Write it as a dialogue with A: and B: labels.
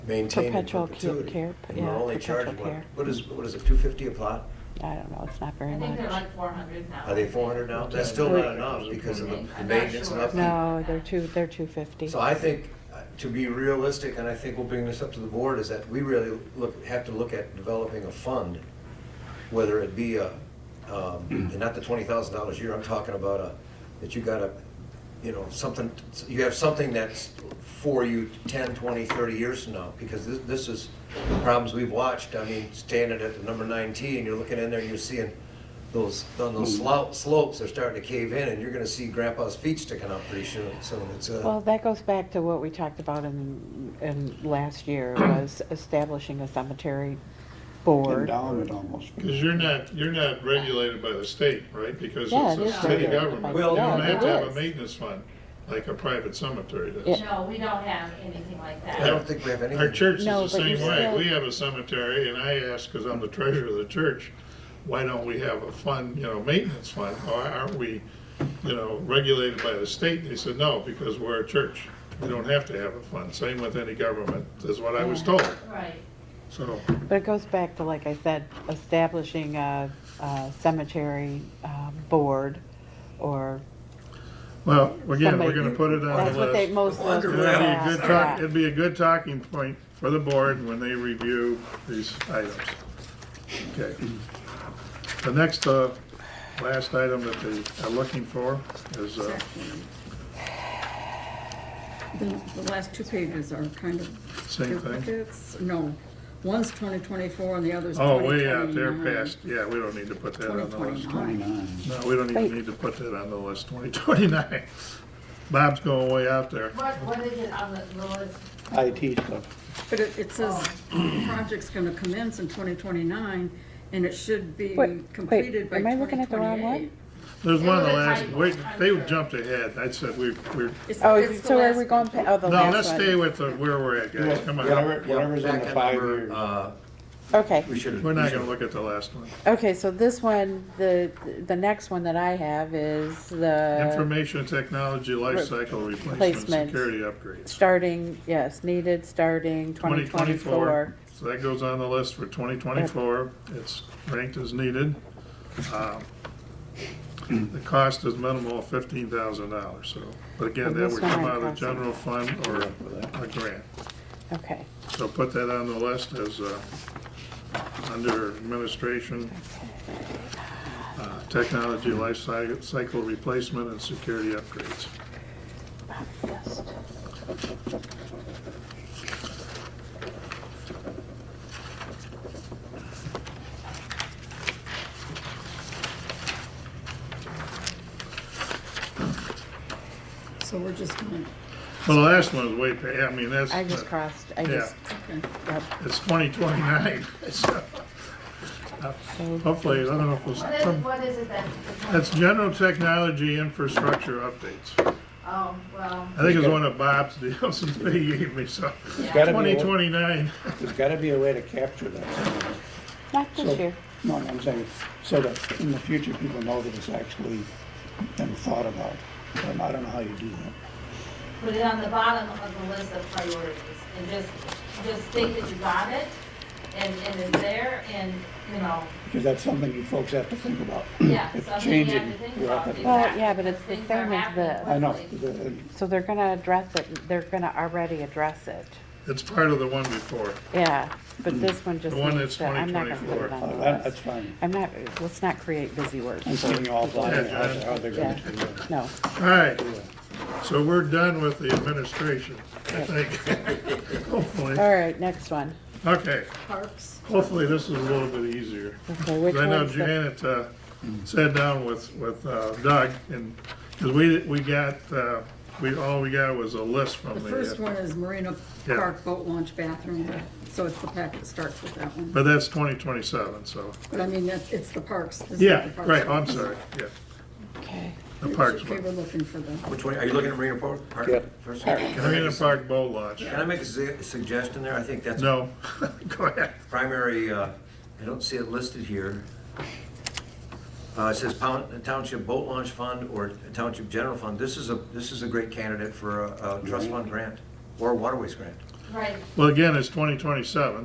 A: maintained in
B: Perpetual cu-
A: perpetuity.
B: care,
A: And we're
B: yeah,
A: only charging,
B: perpetual
A: what-
B: care.
A: what is, what is it, 250 a plot?
B: I don't know, it's not very
C: I think
B: much.
C: they're like four hundred now.
A: Are they 400 now? That's still not enough because of the the maintenance and upkeep.
B: No, they're two, they're two fifty.
A: So I think, uh, to be realistic, and I think we'll bring this up to the board, is that we really look, have to look at developing a fund, whether it be a, um, and not the twenty thousand dollars a year, I'm talking about a, that you gotta, you know, something, you have something that's for you 10, 20, 30 years from now, because this, this is the problems we've watched, I mean, standing at the number nine tee, and you're looking in there, and you're seeing those, on those slou- slopes, they're starting to cave in, and you're gonna see grandpa's feet sticking out pretty soon, so it's, uh.
B: Well, that goes back to what we talked about in, in last year, was establishing a cemetery board.
D: Endowment almost.
E: Because you're not, you're not regulated by the state, right? Because
B: Yeah,
E: it's
B: it
E: a
B: is
E: city
B: regulated
E: government.
B: by-
E: You
A: Well,
E: don't
A: yeah,
E: have to
A: it
E: have a
B: is.
E: maintenance fund, like a private cemetery does.
B: Yeah.
C: No, we don't have anything like
A: I
C: that.
A: don't think we have anything.
E: Our church is
B: No,
E: the
B: but you
E: same way.
B: still-
E: We have a cemetery, and I asked, because I'm the treasurer of the church, why don't we have a fund, you know, maintenance fund? Why aren't we, you know, regulated by the state? They said, no, because we're a church. We don't have to have a fund. Same with any government, is what I was told.
C: Right.
E: So,
B: But it goes back to, like I said, establishing a, a cemetery, uh, board, or,
E: well, again, we're
B: Somebody-
E: gonna put it on the list.
B: that's what they, most of those.
E: It'd
B: people
E: be a
B: have,
E: good talk,
B: yeah.
E: it'd be a good talking point for the board when they review these items. Okay. The next, uh, last item that they are looking for is, uh,
F: The, the last two pages are kind of.
E: Same thing?
F: duplicates. No, one's twenty twenty-four and the other's
E: oh,
F: twenty
E: way
F: twenty-nine.
E: out there past, yeah, we don't need to put that on the list.
D: Twenty-nine.
E: No, we don't
B: Wait.
E: even need to put that on the list, twenty twenty-nine. Bob's going way out there.
C: What, what is it on the the list?
D: IT stuff.
F: But it, it says project's gonna commence in twenty twenty-nine and it should be
B: Wait, wait,
F: completed by
B: am I
F: twenty
B: looking at the wrong one?
F: twenty-eight.
E: There's one of the
C: There was a
E: last,
C: typo,
E: wait,
C: I'm
E: they
C: sure.
E: jumped ahead, I said we, we're,
B: Oh, so are we going, pa- oh, the
E: no, let's
B: last
E: stay
B: one?
E: with the, where we're at, guys, come on.
D: Whatever, whatever's in
A: Back
D: the
A: at
D: five
A: number,
D: years.
A: uh,
B: Okay,
A: We should.
E: We're not gonna look at the last one.
B: okay, so this one, the, the next one that I have is the,
E: Information technology life cycle replacement,
B: Replacement.
E: security upgrades.
B: starting, yes, needed, starting twenty twenty-four.
E: So that goes on the list for twenty twenty-four. It's ranked as needed. Um, The cost is minimal, fifteen thousand dollars, so, but again,
B: And
E: that
B: this
E: would
B: one
E: come
B: I'm
E: out of the
B: crossing.
E: general fund or a grant.
B: Okay,
E: So put that on the list as, uh, under administration, uh, technology life cy- cycle replacement and security upgrades.
B: yes. oh.
F: So we're just gonna,
E: Well, the last one is way, pa- I mean, that's,
B: I just crossed, I
E: Yeah.
B: just,
F: okay.
B: yep.
E: it's 2029. so
B: so,
E: Hopefully, I don't know if it's,
C: What is,
D: Um,
E: some-
C: what is it that?
D: uh,
E: that's general technology infrastructure updates.
C: Oh, well,
E: I think it's one of Bob's deals that he gave me, so
D: Gotta be, a-
E: 2029.
D: there's gotta be a way to capture that.
B: not
D: So-
B: this year.
D: No, I'm saying, so that in the future, people know that it's actually been thought about. Um, I don't know how you do that.
C: put it on the bottom of the list of priorities and just, just think that you got it and, and it's there and, you know,
D: Because that's something you folks have to think about.
C: yeah,
D: It's
C: something you
D: changing
C: have to think about.
D: rapidly.
B: Well, yeah, but it's the
C: Things are
B: same as the-
C: happening
D: I know,
C: quickly.
D: the-
B: So they're gonna address it, they're gonna already address it.
E: It's part of the one before.
B: Yeah, but this one just
E: The one
B: needs
E: that's
B: to, I'm not gonna put it
E: 2024.
B: on
D: uh,
B: the
D: that-
B: list.
D: that's fine. Mm.
B: I'm not, let's not create busy words.
D: I'm seeing you all blind, how
E: John.
D: how they're
B: Yeah,
D: going to do that.
B: no,
E: All right, so we're done with the administration, I think, hopefully.
B: all right, next one.
E: Okay,
F: Parks,
E: hopefully this is a little bit easier.
B: Okay, which
E: I know
B: one's the?
E: Janet uh, sat down with, with uh, Doug, and, because we, we got, uh, we, all we got was a list from
F: the
E: the. uh,
F: first one is Marina
E: Yeah.
F: Park Boat Launch Bathroom, so it's the packet that starts with that one.
E: But that's 2027, so,
F: But I mean, that, it's the parks. this is the
E: yeah,
F: parks
E: right,
F: one.
E: I'm sorry, yeah,
B: Okay,
E: the parks
F: We were
E: one.
F: looking for the.
A: Which one, are you looking at Marina Park? Park
D: Yep.
A: first? Can I make
E: Marina
A: a-
E: Park boat launch,
A: Can I make a su- suggestion there? I think that's
E: no, go ahead.
A: primary, uh, I don't see it listed here. Uh, It says pound- Township Boat Launch Fund or Township General Fund. This is a, this is a great candidate for a a trust fund grant or a waterways grant.
C: right.
E: Well, again, it's twenty twenty-seven,